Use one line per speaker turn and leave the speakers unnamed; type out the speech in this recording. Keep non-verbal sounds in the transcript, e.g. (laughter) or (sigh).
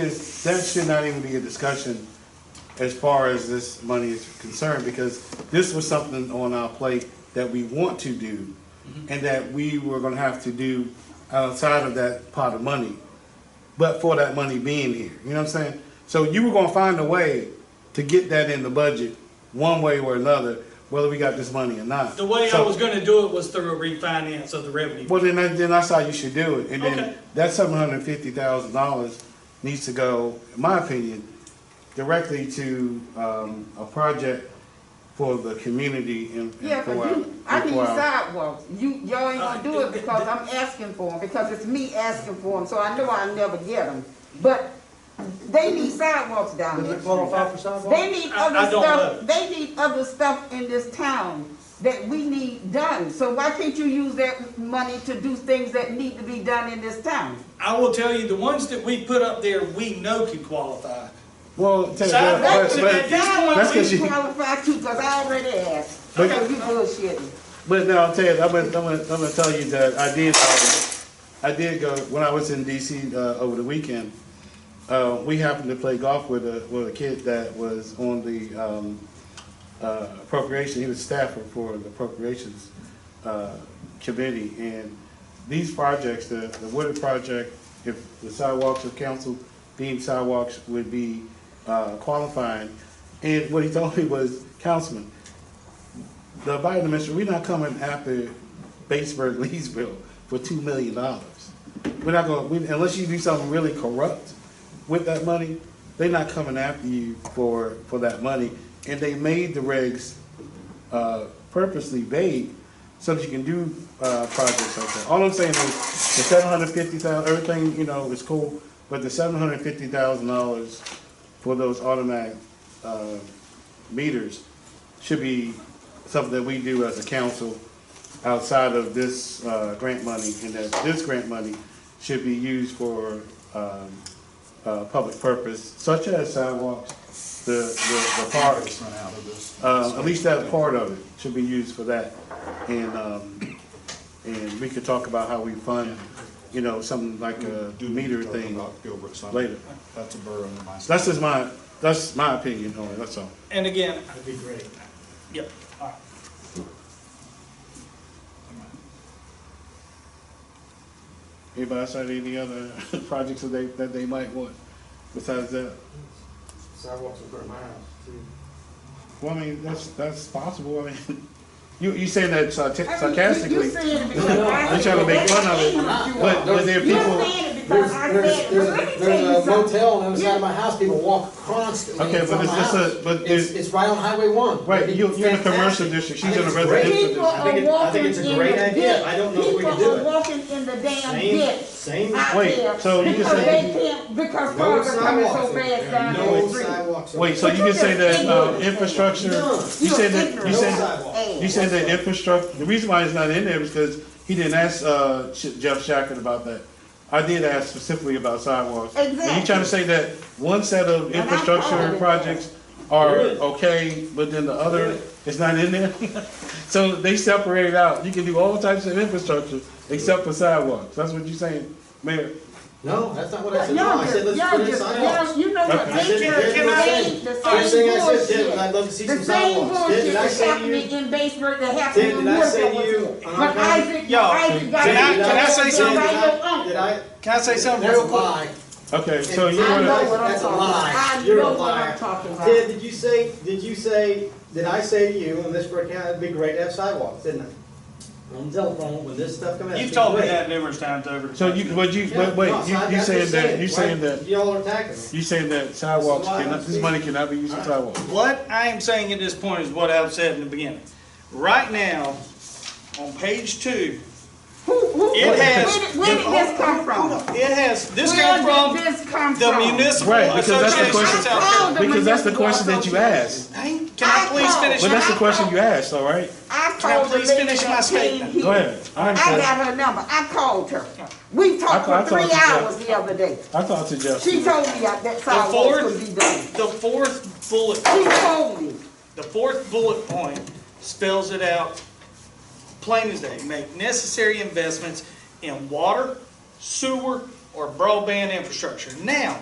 is, that should not even be a discussion as far as this money is concerned, because this was something on our plate that we want to do,
Mm-hmm.
and that we were gonna have to do outside of that pot of money, but for that money being here, you know what I'm saying? So you were gonna find a way to get that in the budget, one way or another, whether we got this money or not.
The way I
So-
was gonna do it was through a refinance of the revenue.
Well, then, that- then that's how you should do it, and
Okay.
then that seven hundred fifty thousand dollars needs to go, in my opinion, directly to, um, a project for the community in, in
Yeah, but
Four Hour.
you, I
in
need
Four Hour.
sidewalks. You, y'all ain't gonna do
Uh,
it because I'm asking for them, because it's me asking for them, so I know I'll never get them. But they need sidewalks down
Does
there.
it qualify for sidewalk?
They need
I- I
other
don't
stuff,
know.
they need other stuff in this town that we need done. So why can't you use that money to do things that need to be done in this town?
I will tell you, the ones that we put up there, we know can qualify.
Well, tell you what,
Sidewalks
but,
and
but,
that-
that's
That's
'cause
what
you-
you qualify to, because I already asked. So
But-
you bullshitting.
but now I'll tell you, I'm gonna, I'm gonna, I'm gonna tell you that I did, um, I did go, when I was in DC, uh, over the weekend, uh, we happened to play golf with a, with a kid that was on the, um, uh, appropriation, he was staffer for the appropriations, uh, committee, and these projects, the, the Wooded project, if the sidewalks of council deemed sidewalks would be, uh, qualifying, and what he told me was, councilman, the Biden administration, we're not coming after Batesburg, Leesville for two million dollars. We're not gonna, we- unless you do something really corrupt with that money, they're not coming after you for, for that money. And they made the regs, uh, purposely vague so that you can do, uh, projects like that. All I'm saying is the seven hundred fifty thousand, everything, you know, is cool, but the seven hundred fifty thousand dollars for those automatic, uh, meters should be something that we do as a council outside of this uh, grant money, and that this grant money should be used for um, uh, public purpose, such as sidewalks, the, the the parks. Uh, At least that part of it should be used for that. And, um, and we could talk about how we fund, you know, something like a
Do need to
meter
talk
thing.
about Gilbert Summit.
later.
That's a borough in my.
That's just my, that's my opinion on it, that's all.
And again. That'd be great. Yep, all right.
Anybody else have any other (laughs) projects that they, that they might want besides that?
Sidewalks in front of my house, too.
Well, I mean, that's, that's possible, I mean, (laughs) you, you saying that sarca-
I mean, you-
sarcastically,
You
they're
saying
(laughs)
it because I
trying to make fun of it, but, but there are
You're
people,
saying it because
There's,
I
there's,
said it, but let me
there's,
tell you
there's a
something.
motel on the other side of my house, people walk constantly
Okay,
in
but
front of
it's
my
just a-
house.
but
It's,
it-
it's right on Highway one.
right,
It'd be
you, you're in a commercial
fantastic.
district,
I
she's in
think
a
it's great.
residential
People
district.
are
think it- I
walking
think
in
it's
the
a great
ditch.
idea. I don't know if we can
People
do
are
it.
walking in the damn
Same-
ditch.
same-
out
Wait,
there
so you just
because
saying-
they can't- Because
No
cars are coming so
sidewalks in
fast
there.
down
No
the street.
sidewalks. in
Wait, so
But
you
you
can say
just
that,
saying
uh,
it.
infrastructure,
No.
you
You're
said that, you
ignorant.
said,
sidewalk.
Ass.
you said that infrastructure, the reason why it's not in there is because he didn't ask, uh, Sh- Jeff Shackett about that. I did ask specifically about sidewalks. And you trying to
Exactly.
say that one set of
I followed
infrastructure
it.
projects are
There is.
okay, but then the other is not in there? (laughs) So they separate it out, you can do all types of infrastructure except for sidewalks, that's what you're saying, Mayor?
No, that's not what I
But
said. No, I
y'all
said
just,
let's
y'all
put in
just, y'all,
sidewalks.
you know what,
Okay.
they
That's what
just
I'm
saying
saying.
the
First thing I
same
said, Ted, I'd
bullshit.
love to see
The
some
same
sidewalks. Ted,
bullshit
did I
that's
say to you?
happening in Batesburg that happened
Ted,
in
did I say to you, um,
Woodville.
an
But
uncommon-
Isaac,
Y'all,
Isaac got.
can I-
it.
can I say
Everybody
something?
look
Ted,
on.
Did I?
Can I say something
That's a
real quick?
lie.
Okay, so you
I know
wanna,
what I'm
That's a
talking
lie.
about. I
You're a
know what
liar.
I'm talking about.
Ted, did you say, did you say, did I say to you, in this break out, it'd be great to have sidewalks, didn't I? On the telephone, when this stuff comes out.
You've
it'd be
told me
great.
that numerous times over.
so you, but you,
Yeah,
but wait,
no,
you,
so I-
you
that's
saying
just
that, you
why
saying that,
Y'all are attacking me.
you saying that sidewalks
why I
cannot, this
speak.
money cannot be used for sidewalks?
What I am saying at this point is what I've said in the beginning. Right now, on page two,
Who, who,
it
where did,
has.
where did this come from?
It has, this
Where
came from
did this come
the
from?
municipal
Right, because that's the
association
question.
of South Carolina.
Because that's the question that you asked.
Hey, Can I please finish?
Well, that's the
my-
question you asked, all right?
I
Can I
called the
please
lady
finish my
that came
statement?
here.
Go ahead. I
I
understand.
got her number. I called her. We talked
I- I
for three
talked to Jeff.
hours the other day.
I thought to Jeff.
She told me that that sidewalk
fourth-
could be done.
The fourth bullet,
She told me.
the fourth bullet point spells it out plain as day. Make necessary investments in water, sewer, or broadband infrastructure. Now,